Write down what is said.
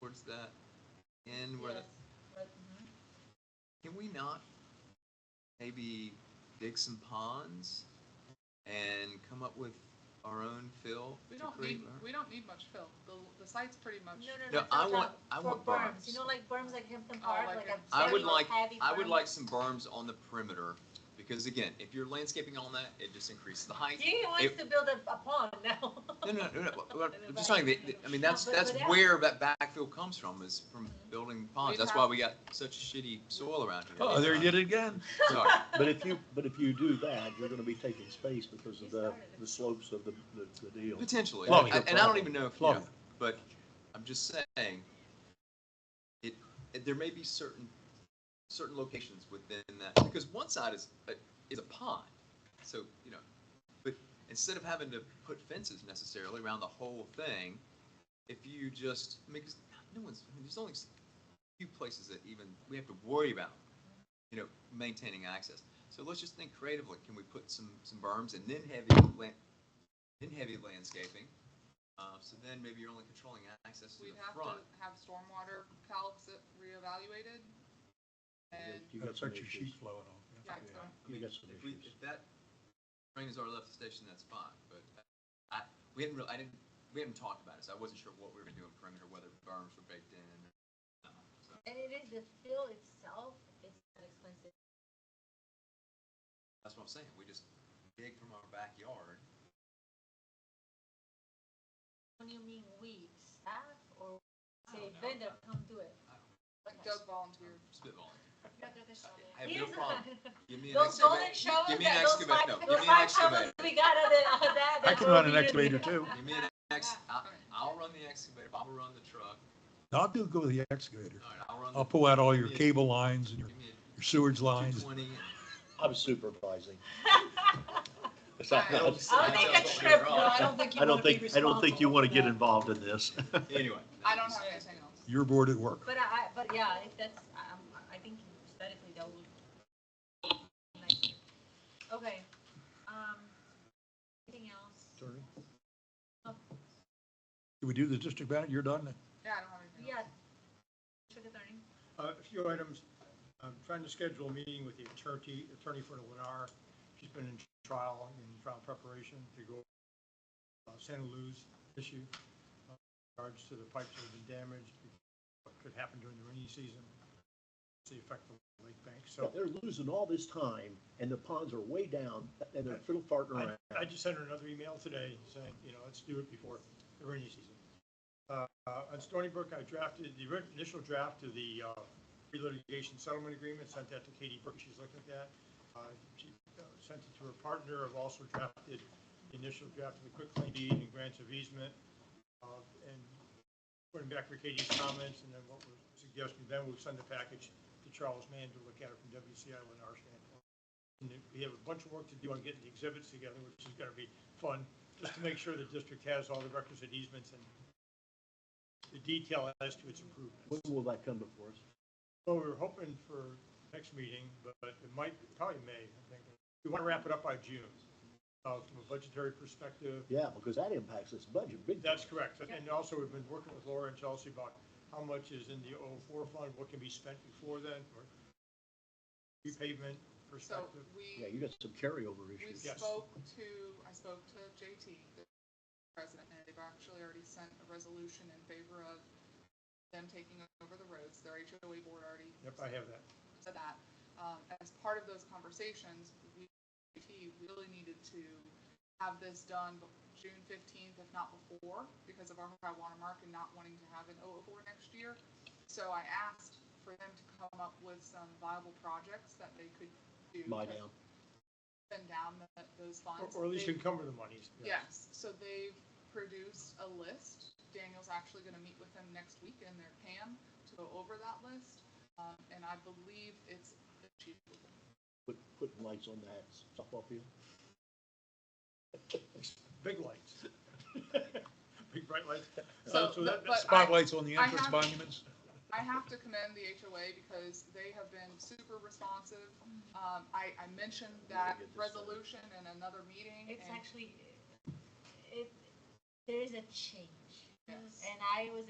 towards that end where the, mm-hmm. can we not maybe dig some ponds and come up with our own fill? We to don't create need, our- we don't need much fill. The, the site's pretty much. No, no, No, no. I for want- job- I for want berms. You know, like berms like Hampton Oh, Park, like like a- a I would very like, heavy I would berm. like some berms on the perimeter, because again, if you're landscaping on that, it just increases the height. He wants it- to build a, a pond now. No, no, no, no, but- but I'm just saying, that- that- I mean, that's, But- that's but that- where that backfill comes from, is from building ponds, Mm-hmm. We'd that's have- why we got such shitty soil around here. Oh, there you did it again. Sorry. But if you, but if you do that, you're gonna be taking space because of the, the slopes of the, the, the deal. Potentially, Plumbing. and and I don't even know if, you know, Plumbing. but I'm just saying, it, it- there may be certain, certain locations within that, because one side is, a- is a pond, so, you know, but instead of having to put fences necessarily around the whole thing, if you just, I mean, 'cause no one's, I mean, there's only a few places that even, we have to worry about, you know, maintaining access. So let's just think creatively, can we put some, some berms and then heavy, lan- then heavy landscaping? Uh, so then maybe you're only controlling access to the We'd have front. to have stormwater calcs reevaluated. And, You got That's some what your sheet issues. flowing on. yeah, so, I mean, You got some if we- issues. If that trains are left the station, that's fine, but I, we hadn't really, I didn't, we hadn't talked about it, so I wasn't sure what we were gonna do in perimeter, whether berms were baked in. or not, so. And it is, the fill itself is not expensive. That's what I'm saying, we just dig from our backyard. When you mean we, staff or I say don't know. vendor, come do it. I don't- Okay. Doug volunteered. Spitballing. I have no Here's problem. Give me an Those golden excavator. shovels, Give me an that- those excavator, five, no, those give me an five shovels excavator. we got out of the- of that. I that can were run an needed. excavator too. Give me an ex, I, I'll run the excavator, I'll run the truck, I'll do go with the excavator. all right, I'll run. the- I'll pull out all your Yeah. cable lines and your Give me your sewage a two lines. twenty. I'm supervising. I'll I I'll make a trip, no, I don't think you don't wanna be think, I don't think you wanna get responsible for that. involved in this. Anyway. I don't have anything else. Your board at work. But I, I- but yeah, if that's, I- I'm, I think aesthetically that would. nice. Okay, um, anything else? Sorry. Oh, Did we do the district manager? You're done? Yeah, I don't have anything else. Yeah. District attorney, Uh, A few items. I'm trying to schedule a meeting with the attorney, attorney for the Lennar. She's been in trial, in trial preparation to go uh, Santa Luz issue uh, in regards to the pipes that have been damaged, what could happen during the rainy season, the effect of the lake bank. So They're losing all this time and the ponds are way down and they're fiddle farting I, around. I just sent her another email today saying, you know, let's do it before the rainy season. Uh, uh, on Stony Brook, I drafted the ri- initial draft of the, uh, pre-litigation settlement agreement, sent that to Katie Brook, she's looked at that. Uh, she, uh, sent it to her partner, I've also drafted the initial draft of the quick claim deed and grants of easement. Uh, and putting back for Katie's comments and then what we're suggesting, then we'll send the package to Charles Mann to look at it from WCI and our standpoint. And if we have a bunch of work to do on getting the exhibits together, which is gonna be fun, just to make sure the district has all the requisite easements and the detail as to its When improvements. will that come before us? So we we're hoping for next meeting, but but it might, probably May, I think. We wanna wrap it up by June, uh, from a budgetary perspective. Yeah, because that impacts this budget big. time. That's correct. And also, we've been working with Laura and Chelsea about how much is in the 04 fund, what can be spent before then, or repavement So perspective. Yeah, we, you got some carryover we issues. Yes. spoke to, I spoke to JT, the president, and they've actually already sent a resolution in favor of them taking over the roads. Their HOA board already Yep, I have that. to that. Um, as part of those conversations, we we really needed to have this done bef- June fifteenth, if not before, because of our high water mark and not wanting to have an 004 next year. So I asked for them to come up with some viable projects that they could do. Buy to down. Spend down the- those Or- funds. Or at least They- encumber the monies. Yes, so they've produced a list. Daniel's actually gonna meet with them next week in their CAM to go over that list. Um, and I believe it's achievable. Put, putting lights on that softball field. Big lights. Big bright lights. So, Uh, but- So that, that's, but I- Spotlights on the I entrance have- monuments? I have to commend the HOA because they have been super responsive. Um, I, I mentioned that Really good this time. resolution in another meeting. it's and- actually, it, there is a change. Yes. And I was